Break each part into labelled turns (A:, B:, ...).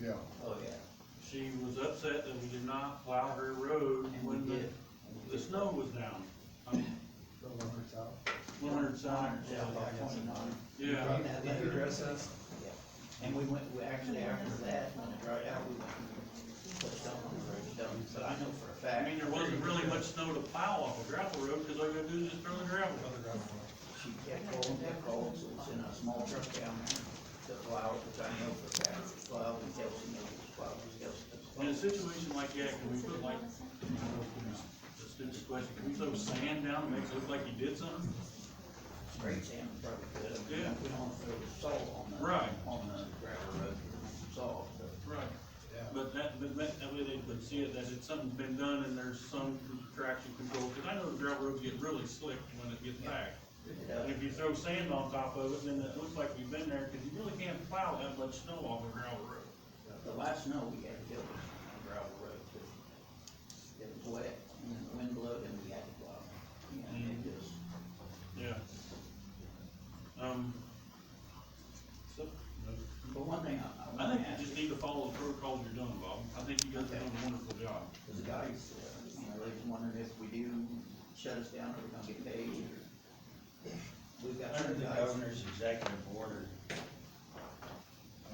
A: yeah,
B: Oh, yeah.
C: She was upset that we did not plow her road when the, the snow was down.
B: The lumber's out.
C: One hundred south,
B: Yeah, like twenty-nine.
C: yeah,
B: Did you address us? And we went, we actually after that, when it dried out, we went and put some on the road, done, but I know for a
C: I
B: fact.
C: mean, there wasn't really much snow to plow off a gravel road, cause all you gotta do is just throw the gravel.
B: She kept calling, kept calling, so it's in a small truck down there, the plow, which I know for a fact, was plowed, and Kelsey knew it was plowed, and Kelsey
C: In
B: was
C: a
B: plowed.
C: situation like that, can we put like, I don't know, you know, it's a stupid question, can we throw sand down and make it look like you did something?
B: Straight sand, was probably good, I mean,
C: Yeah.
B: we don't throw salt on the,
C: Right.
B: on the gravel road, salt, so.
C: Right.
A: yeah.
C: But that, but that, that way they would see it, that it's something's been done and there's some traction control, cause I know the gravel roads get really slick when it gets back.
B: it
C: And
B: does.
C: if you throw sand on top of it, then it looks like you've been there, cause you really can't plow that much snow off a gravel road.
B: The last snow we had to do was on a gravel road, too. It was wet, and then the wind blew, and we had to plow. And
C: Mm.
B: it just,
C: Yeah. Um. So,
B: but one thing I,
C: I
B: I wanna
C: think
B: ask,
C: you just need to follow the protocols you're doing, Bob, I think you guys are doing a wonderful job.
B: is the guys, uh, you know, they just wondering if we do shut us down, are we gonna get paid, or? We've got
D: Under
B: some
D: the
B: guys,
D: governor's executive order,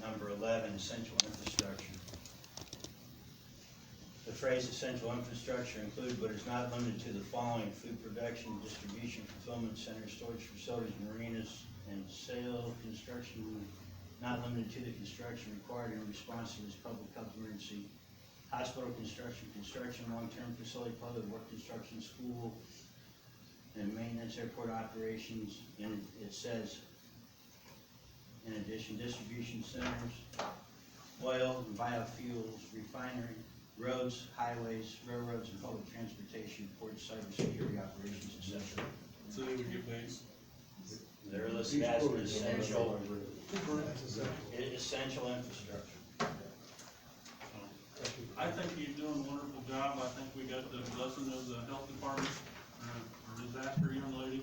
D: number eleven, essential infrastructure. The phrase essential infrastructure include but is not limited to the following: food production, distribution, fulfillment centers, storage facilities, marinas, and sale, construction, not limited to the construction required in response to this public health emergency. Hospital construction, construction, long-term facility, public work construction, school, and maintenance, airport operations, and it says, in addition, distribution centers, oil and biofuels, refinery, roads, highways, railroads, and public transportation, ports, cybersecurity operations, et cetera.
C: So they would get paid.
D: They're listed as an essential, e-,
A: That's essential.
D: essential infrastructure.
C: I think you're doing a wonderful job, I think we got the blessing of the health department, uh, our disaster young lady,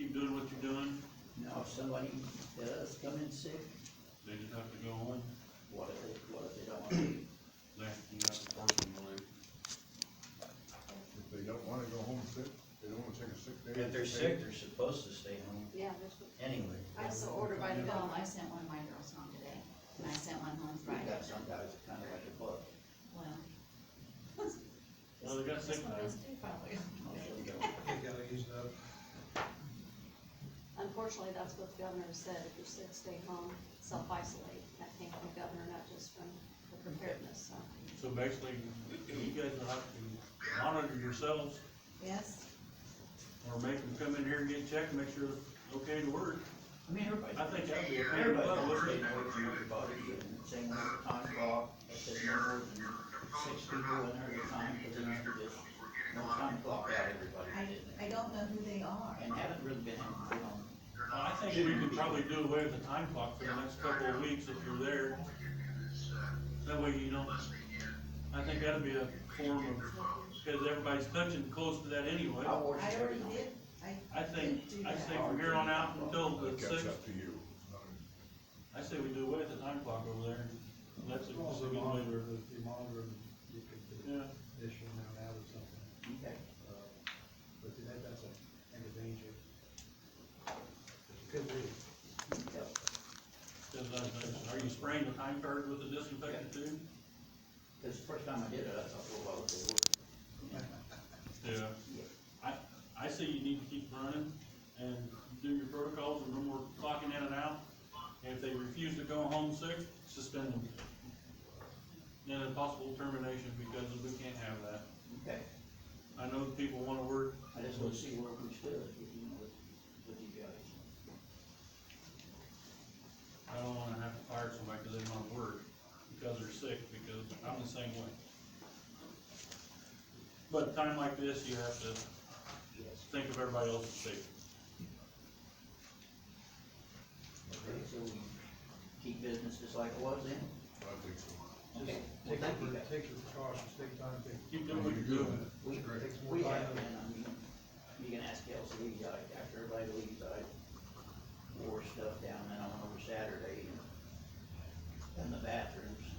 C: keep doing what you're doing,
B: now if somebody does come in sick,
C: they just have to go home,
B: what if, they- what if they don't wanna leave?
C: they, you have to force them to leave.
A: If they don't wanna go home sick, they don't wanna take a sick day.
D: If they're sick, they're supposed to stay home
E: Yeah, that's what,
D: anyway.
E: I saw order by the bell, Oh, I sent one of my girls home today, and I sent one home
B: We've
E: Friday,
B: got some guys that kinda like a book,
E: well.
C: Well, they got
E: that's
C: sick
E: what
C: now.
E: those do probably.
B: mostly go.
E: Unfortunately, that's what the governor said, if you're sick, stay home, self-isolate, that came from the governor, not just from the preparedness, so.
C: So basically, you guys will have to monitor yourselves,
E: Yes.
C: or make them come in here and get checked, make sure it's okay to work,
B: I mean, everybody's.
C: I think that'd be a pain in the
B: Everybody
C: butt,
B: wants to
C: wouldn't
B: stay
C: it?
B: away from everybody, and same with the time clock, it says no more than six people in there at a time, because then after this, no time clock out everybody,
F: I,
B: didn't
F: I don't know who they are.
B: And haven't really been anything on,
C: Well, Uh, I think we could probably do away with the time clock for the next couple of weeks if you're there. That way you don't, I think that'd be a form of, because everybody's touching close to that anyway.
B: I watched
F: I already
B: everybody.
F: did, I.
C: I think,
F: did do
C: I
F: that.
C: say from here on out until
A: That
C: the
A: catch
C: sixth,
A: up to you.
C: I say we do away with the time clock over there. That's a
G: You Also
C: good way
G: monitor, the- you monitor, them, you could
C: Yeah,
G: issue them out or something,
B: Okay,
G: uh, but that, that's a, and a danger. It Could be.
B: so,
C: 'cause I was like, uh, are you spraying the time card with the disinfectant too?
B: cause the first time I did it, I thought, well, well, it worked.
C: Yeah. I, I say you need to keep running and do your protocols and no more clocking in and out. And If they refuse to go home sick, suspend them. Then a possible termination because we can't have that.
B: Okay,
C: I know that people wanna work.
B: I just wanna see where we stood, you know, with, with you guys.
C: I don't wanna have to fire somebody because they wanna work, because they're sick, because I'm the same way. But a time like this, you have to
B: Yes.
C: think of everybody else's safety.
B: Okay, so we keep business just like it was then?
A: I think so.
B: Okay, well,
G: Take
B: thank you
G: your,
B: guys.
G: take your precautions, take time, take.
C: Keep doing what you're doing.
B: We,
G: Takes more
B: we
G: time.
B: have been, I mean, you can ask Kelsey, we, uh, after everybody leaves, I wore stuff down and I went over Saturday and in the bathroom